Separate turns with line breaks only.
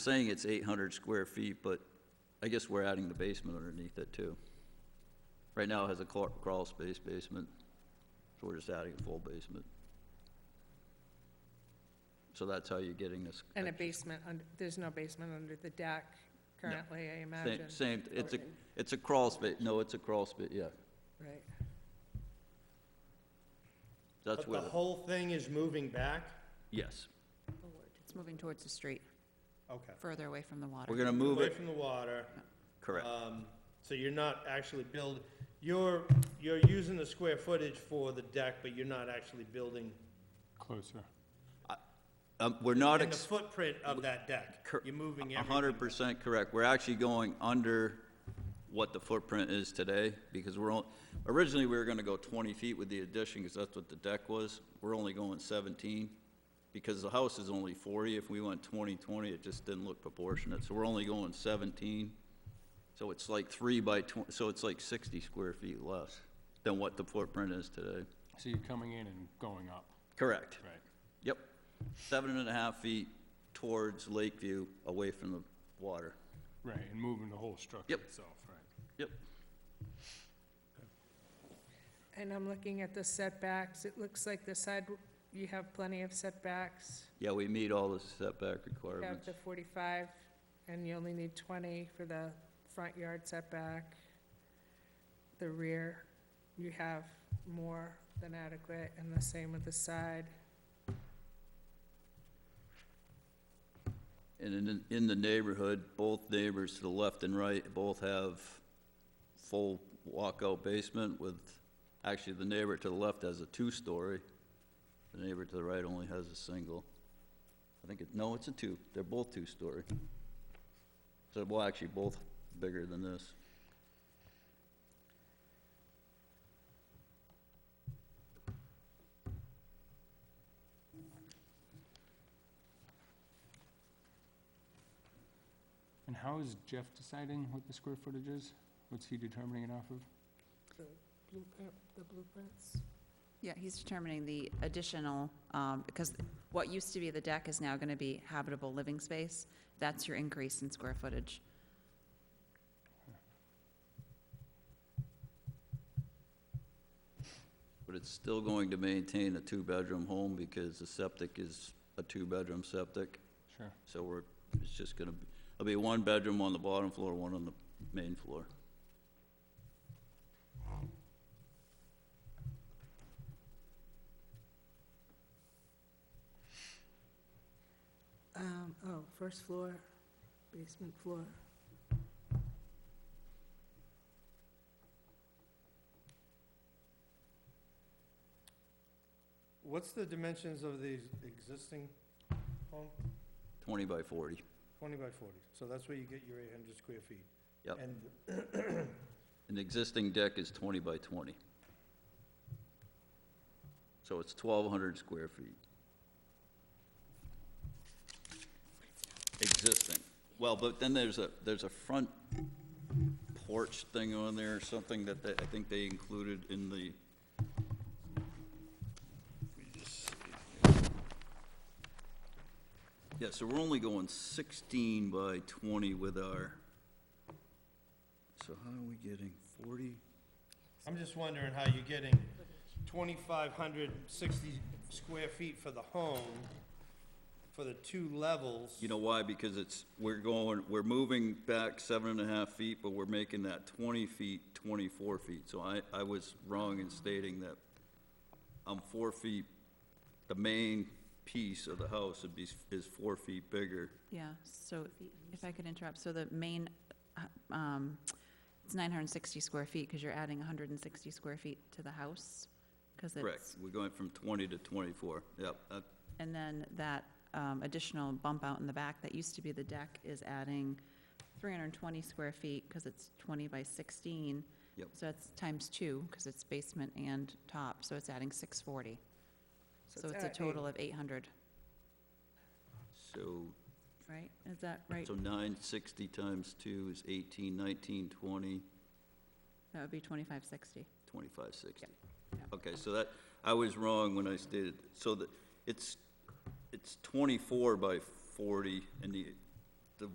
saying it's 800 square feet, but I guess we're adding the basement underneath it, too. Right now, it has a crawl crawl space basement, so we're just adding a full basement. So that's how you're getting this.
And a
extra-
basement, under- there's no basement under the deck currently, I imagine.
Same, same, it's a,
Or-
it's a crawl space, no, it's a crawl space, yeah.
Right.
That's where,
But the
the-
whole thing is moving back?
yes.
It's moving towards the street,
Okay.
further away from the
We're
water.
gonna move
Away
it,
from the water.
correct,
um, So you're not actually build, you're, you're using the square footage for the deck, but you're not actually building.
Closer.
um, we're not.
in the
ex-
footprint of that deck.
Cor-
You're moving
A
everything.
hundred percent correct. We're actually going under what the footprint is today, because we're on, originally, we were gonna go twenty feet with the addition, because that's what the deck was. We're only going seventeen, because the house is only forty. If we went 20, 20, it just didn't look proportionate, so we're only going seventeen. So it's like three by tw- so it's like sixty square feet less than what the footprint is today.
So you're coming in and going up,
Correct.
right?
Yep. Seven and a half feet towards Lakeview, away from the water.
Right, and moving the whole structure
Yep.
itself, right?
Yep.
And I'm looking at the setbacks. It looks like the side, you have plenty of setbacks.
Yeah, we meet all the setback
You have
requirements.
the 45, and you only need 20 for the front yard setback. The rear, you have more than adequate, and the same with the side.
And in, in the neighborhood, both neighbors to the left and right both have full walkout basement with, actually, the neighbor to the left has a two-story. The neighbor to the right only has a single. I think it, no, it's a two. They're both two-story. So, well, actually, both bigger than this.
And how is Jeff deciding what the square footage is? What's he determining it off of?
The blueprint, the blueprints?
Yeah, he's determining the additional, um, because what used to be the deck is now gonna be habitable living space. That's your increase in square footage.
But it's still going to maintain a two-bedroom home because the septic is a two-bedroom septic.
Sure.
So we're, it's just gonna, be it'll be one bedroom on the bottom floor, one on the main floor.
Um, oh, first floor, basement floor.
What's the dimensions of the existing home?
Twenty by forty.
Twenty by forty. So that's where you get your eight hundred square feet.
Yep.
And
An existing deck is twenty by twenty. So it's twelve hundred square feet. Existing. Well, but then there's a, there's a front porch thing on there, something that they- I think they included in the. Let me just see here. Yeah, so we're only going sixteen by twenty with our, so how are we getting forty?
I'm just wondering how you're getting twenty-five hundred sixty square feet for the home, for the two levels.
You know why? Because it's, we're going, we're moving back seven and a half feet, but we're making that twenty feet, twenty-four feet. So I, I was wrong in stating that I'm four feet, the main piece of the house would be, is four feet bigger.
Yeah, so if I could interrupt, so the main, uh, um, it's nine hundred and sixty square feet, because you're adding hundred and sixty square feet to the house, because it's.
Correct. We're going from twenty to twenty-four. Yep, that-
And then that um, additional bump out in the back that used to be the deck is adding 320 square feet because it's 20 by 16.
Yep.
So that's times two because it's basement and top, so it's adding 640. So it's a
at eight.
total of 800,
so,
right? Is that right?
so nine sixty times two is eighteen, nineteen, twenty.
That would be 2560.
Twenty-five sixty.
Yeah.
Okay, so that, I was wrong when I stated, so that, it's, it's twenty-four by forty, and the,